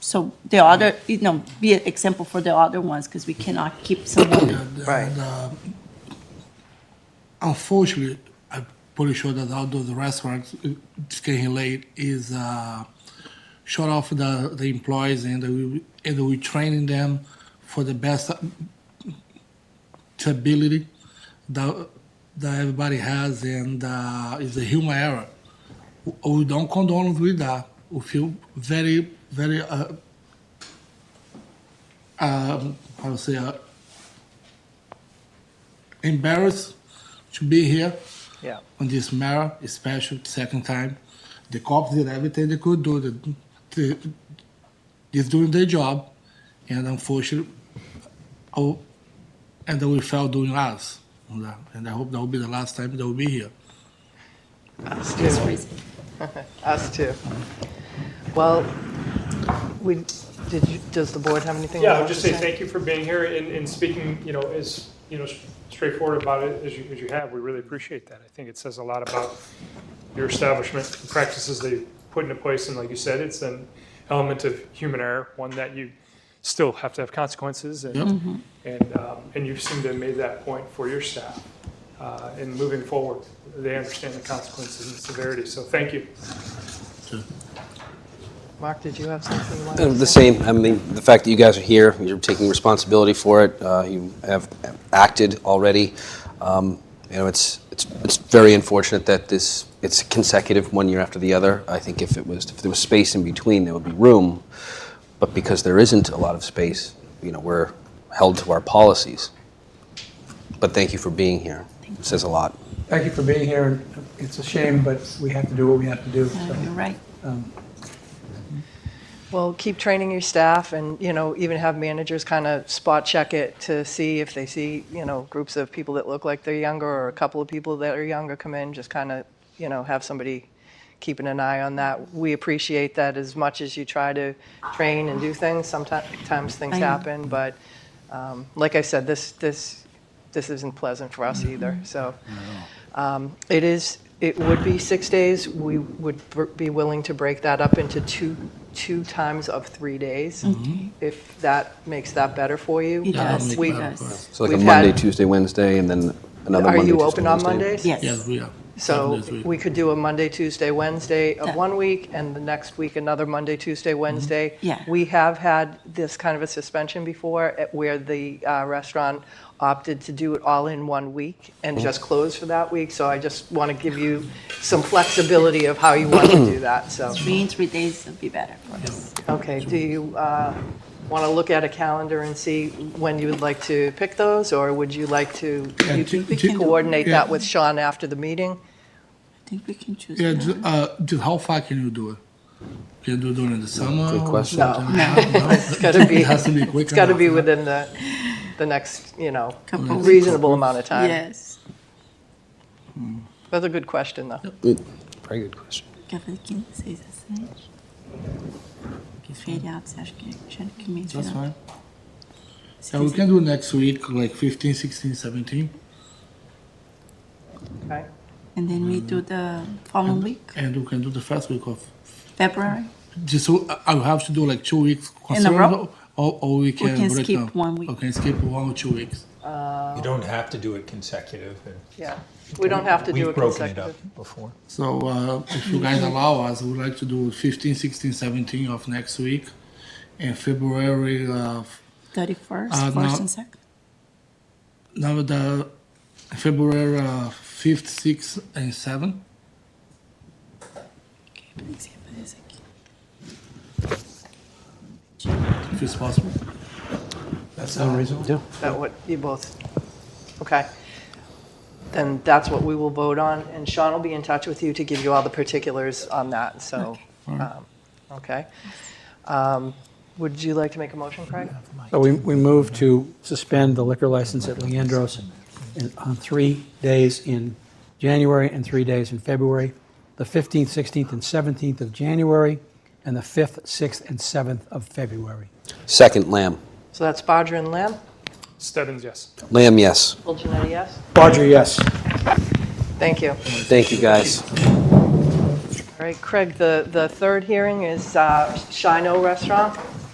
So the other, you know, be an example for the other ones, because we cannot keep someone. And, Right. and, uh, unfortunately, I'm pretty sure that outdoor the restaurants uh, it's getting late is uh, short of the, the employees and we and we training them for the best ability that that everybody has and uh, it's a human error. We don't condone with that. We feel very very uh, um, how to say. Uh, embarrassed to be here Yeah. on this matter, especially the second time. The cops did everything they could do. The, the, they're doing their job, and unfortunately, oh, and they will fail doing us. And I- And I hope that will be the last time they will be here. Us too. Us too. Well, we, did you, does the board have anything? Yeah, they I'll just say want to thank you for being here and, and speaking, you know, as, you know, straightforward about it as you, as you have. We really appreciate that. I think it says a lot about your establishment, the practices they put into place, and like you said, it's an element of human error, one that you still have to have consequences, and, and, um, and you seem to have made that point for your staff. Uh, in moving forward, they understand the consequences and severity, so thank you. Mark, did you have something you Uh, wanted The to say? same, I mean, the fact that you guys are here, you're taking responsibility for it, uh, you have acted already. Um, You know, it's, it's, it's very unfortunate that this, it's consecutive one year after the other. I think if it was, if there was space in between, there would be room. But because there isn't a lot of space, you know, we're held to our policies. But thank you for being here. It says a lot. Thank you for being here. It's a shame, but we have to do what we have to do. so, You're right. um, Well, keep training your staff and, you know, even have managers kind of spot check it to see if they see, you know, groups of people that look like they're younger or a couple of people that are younger come in, just kind of, you know, have somebody keeping an eye on that. We appreciate that as much as you try to train and do things. Sometimes things I know. happen, but um, like I said, this, this, this isn't pleasant for us either, so. Um, It is, it would be six days. We would br- be willing to break that up into two, two times of three days, if that makes that better for you. Mm-hmm. It Um, does, we- it does. So like a We've Monday, had- Tuesday, Wednesday, and then another Are Monday, you Tuesday, open on Wednesday. Mondays? Yes, Yes. we are. So Seven days a we week. could do a Monday, Tuesday, Wednesday Yeah. of one week, and the next week, another Monday, Tuesday, Wednesday. Yeah. We have had this kind of a suspension before, at where the uh, restaurant opted to do it all in one week and Mm-hmm. just close for that week. So I just want to give you some flexibility of how you want to do that, so. Three in three days would be better for us. Okay, do you want to look at a calendar and see when you would like to pick those, or would you like to Yeah, you to- could to- coordinate that yeah. with Sean after the meeting? I think we can choose. Yeah, that. ju- uh, just how far can you do it? Can you do it during the summer? Good or question. something like that? No. It's got to be, It has to be quick it's got to enough, be yeah. within the, the next, you know, Couple weeks. reasonable amount of time. Yes. That's a good question, though. Good. Very good question. Café 15, 6 a 7. Feriado, você acha que tinha que That's mencionar? fine. Yeah, we can do next week, like 15, 16, 17. Okay. And then we do the following week, And we can do the first week of February. just so I- I'll have to do like two weeks In a row? Or, or we can, can break skip down. one week. We can skip one or two weeks. You don't have to do it consecutive. and Yeah, we don't have to do a We've broken it up consecutive. before. So uh, if Mm-hmm. you guys allow us, we'd like to do 15, 16, 17 of next week, and February. Uh, 31st, Uh, 1st, no. and 2nd. now the February uh, 5th, 6th, and 7th. Ok, peraí, que você vai fazer isso aqui. If it's possible. That's unreasonable. That what, you both, okay. Then that's what we will vote on, and Sean will be in touch with you to give you all the particulars on that, so, um, okay. Um, Would you like to make a motion, Craig? So we, we move to suspend the liquor license at Leandro's in- on three days in January and three days in February, the 15th, 16th, and 17th of January, and the 5th, 6th, and 7th of February. Second, Lamb. So that's Bodger and Lamb. Stebbins, yes. Lamb, yes. Full Janetti, yes? Barger, yes. Thank you. Thank you, guys. All right, Craig, the, the third hearing is uh, Shino Restaurant.